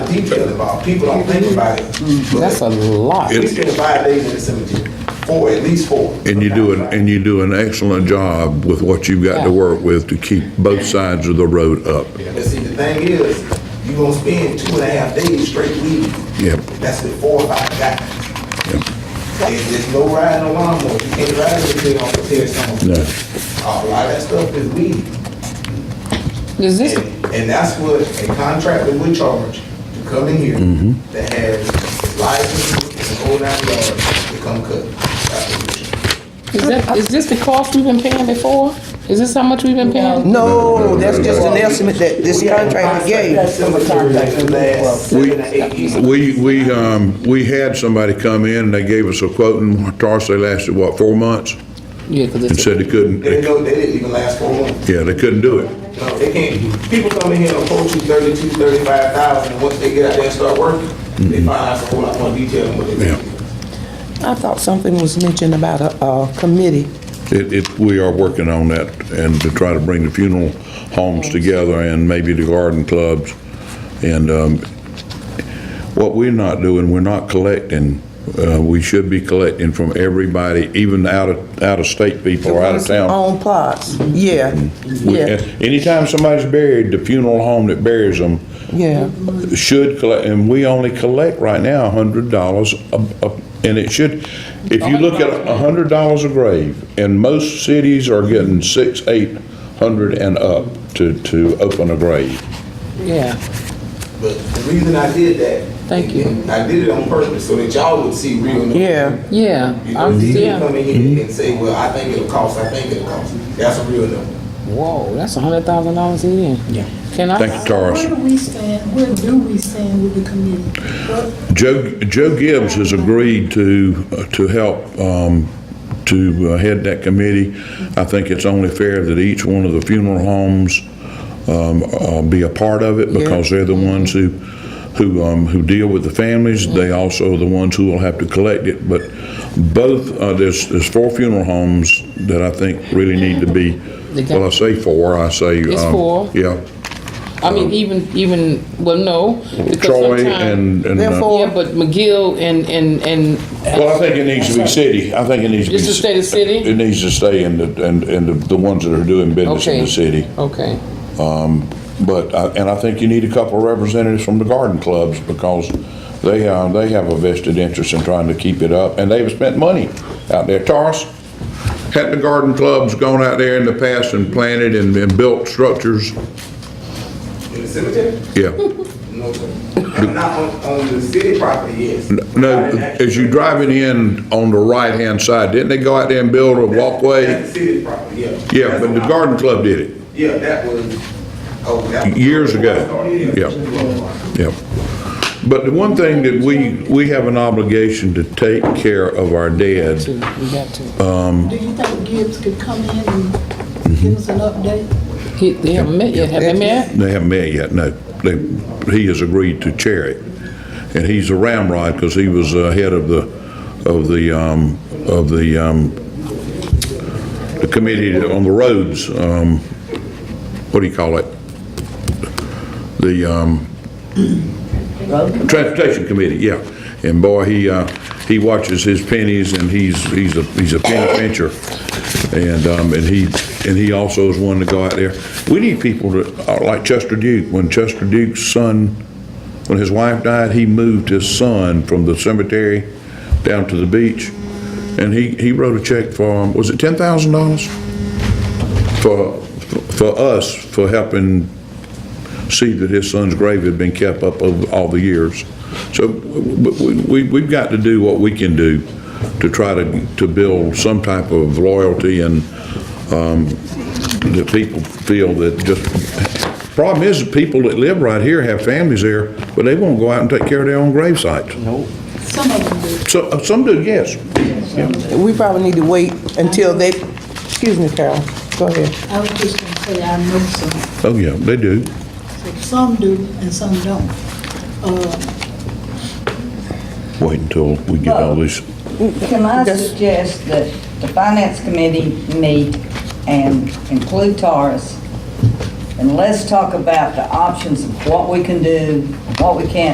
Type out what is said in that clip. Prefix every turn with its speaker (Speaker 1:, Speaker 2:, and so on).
Speaker 1: detail involved. People don't think about it.
Speaker 2: Mm-hmm. That's a lot.
Speaker 1: We spend five days in the cemetery, four, at least four.
Speaker 3: And you do, an and you do an excellent job with what you've got to
Speaker 2: Yeah.
Speaker 3: work with to keep both sides of the road up.
Speaker 1: But see, the thing is, you gonna spend two and a half days straight weeding.
Speaker 3: Yep.
Speaker 1: That's with four or five guys.
Speaker 3: Yep.
Speaker 1: There's, there's no riding a lawnmower, you can't ride it if they don't prepare someone.
Speaker 3: No.
Speaker 1: A lot of that stuff is weeding.
Speaker 2: Is this,
Speaker 1: And, and that's what a contractor would charge to come in here
Speaker 3: Mm-hmm.
Speaker 1: that has license and old nine yards to come cut. That's what we charge.
Speaker 2: is that, is this the cost we've been paying before? Is this how much we've been paying?
Speaker 4: No, that's just an estimate that this
Speaker 1: We have a
Speaker 4: contractor gave.
Speaker 1: Cemetery that lasts
Speaker 3: We-
Speaker 1: seven to eight years.
Speaker 3: We, we, um, we had somebody come in and they gave us a quote and Tarsus, they lasted, what, four months?
Speaker 2: Yeah, cause
Speaker 3: And
Speaker 2: it's,
Speaker 3: said they couldn't,
Speaker 1: They
Speaker 3: they-
Speaker 1: didn't know, they didn't even last four months.
Speaker 3: yeah, they couldn't do it.
Speaker 1: No, they can't, people come in here and approach you thirty-two, thirty-five thousand, and once they get out there and start working, they find out a whole lot more detail than what they
Speaker 3: Mm-hmm. Yeah.
Speaker 1: think.
Speaker 4: I thought something was mentioned about a, a committee.
Speaker 3: It, it, we are working on that and to try to bring the funeral homes together and maybe the garden clubs. And, um, what we're not doing, we're not collecting, uh, we should be collecting from everybody, even out of, out of state people or out of town. Mm-hmm.
Speaker 4: On plots, yeah,
Speaker 3: We-
Speaker 4: yeah,
Speaker 3: Anytime somebody's buried, the funeral home that buries them
Speaker 4: yeah.
Speaker 3: should collect, and we only collect right now a hundred dollars a, a- and it should, if you look at a hundred dollars a grave, and most cities are getting six, eight hundred and up to, to open a grave.
Speaker 2: yeah.
Speaker 1: But the reason I did that.
Speaker 2: Thank you.
Speaker 1: and I did it on purpose, so that y'all would see real. numbers.
Speaker 4: Yeah.
Speaker 2: Yeah,
Speaker 1: You know,
Speaker 2: I'm,
Speaker 1: these people
Speaker 2: yeah.
Speaker 1: come in
Speaker 3: Mm-hmm.
Speaker 1: here and say, well, I think it'll cost, I think it'll cost, that's a real number.
Speaker 2: Whoa, that's a hundred thousand dollars in. Yeah. Can I?
Speaker 3: Thank you, Taurus.
Speaker 5: Where do we stand, where do we stand with the committee? What-
Speaker 3: Joe, Joe Gibbs has agreed to, uh, to help, um, to uh, head that committee. I think it's only fair that each one of the funeral homes, um, uh, be a part of it because they're the ones who, who, um, who deal with the families. They also are the ones who will have to collect it. But both, uh, there's, there's four funeral homes that I think really need to be, well, I say four, I say.
Speaker 2: It's
Speaker 3: um,
Speaker 2: four.
Speaker 3: Yeah.
Speaker 2: I mean, even, even, well, no. because
Speaker 3: Troy
Speaker 2: sometime-
Speaker 3: and, and. uh,
Speaker 4: Therefore-
Speaker 2: Yeah, but McGill and, and, and.
Speaker 3: Well, I think it needs to be city. I think it needs to be.
Speaker 2: Just to stay the city?
Speaker 3: It needs to stay in the, and, and the- the ones that are doing business in
Speaker 2: Okay.
Speaker 3: the city.
Speaker 2: Okay,
Speaker 3: But, I- and I think you need a couple of representatives from the garden clubs because they, uh, they have a vested interest in trying to keep it up and they've spent money out there. Taurus, had the garden clubs gone out there in the past and planted and, and built structures?
Speaker 1: In the cemetery,
Speaker 3: Yeah.
Speaker 1: no, sir. And not on, on the city property, yes.
Speaker 3: No, as you driving in on the right-hand side, didn't they go out there and build a walkway?
Speaker 1: That's the city property, yeah.
Speaker 3: Yeah,
Speaker 1: That's
Speaker 3: but the
Speaker 1: on-
Speaker 3: garden club did it.
Speaker 1: Yeah, that was, oh, that was.
Speaker 3: Years ago, yeah. Yep. But the one thing that we, we have an obligation to take care of our dead.
Speaker 2: two, we got two.
Speaker 5: Do you think Gibbs could come in and give us an update?
Speaker 2: He- They haven't met yet, have they met?
Speaker 3: They haven't met yet, no. They, he has agreed to chair it. And he's a ramrod because he was uh, head of the, of the, um, of the, um, the committee on the roads, um, what do you call it? The, um, Transportation Committee, yeah. And boy, he, uh, he watches his pennies and he's, he's a, he's a penny pincher. And, um, and he, and he also is one to go out there. We need people that, are like Chester Duke, when Chester Duke's son, when his wife died, he moved his son from the cemetery down to the beach. And he, he wrote a check for, um, was it ten thousand dollars? For, for us, for helping see that his son's grave had been kept up over all the years. So we, we, we've got to do what we can do to try to, to build some type of loyalty and, um, that people feel that just, problem is, the people that live right here have families there, but they won't go out and take care of their own grave sites.
Speaker 5: Some of them do.
Speaker 3: So, uh, some do, yes.
Speaker 4: We probably need to wait until they, excuse me, Carol, go ahead.
Speaker 5: I was just gonna say, I know some,
Speaker 3: Oh, yeah, they do.
Speaker 5: some do and some don't. Uh,
Speaker 3: Wait until we get all this,
Speaker 6: Can I
Speaker 4: Yes.
Speaker 6: suggest that the finance committee meet and include Taurus? And let's talk about the options of what we can do, what we can't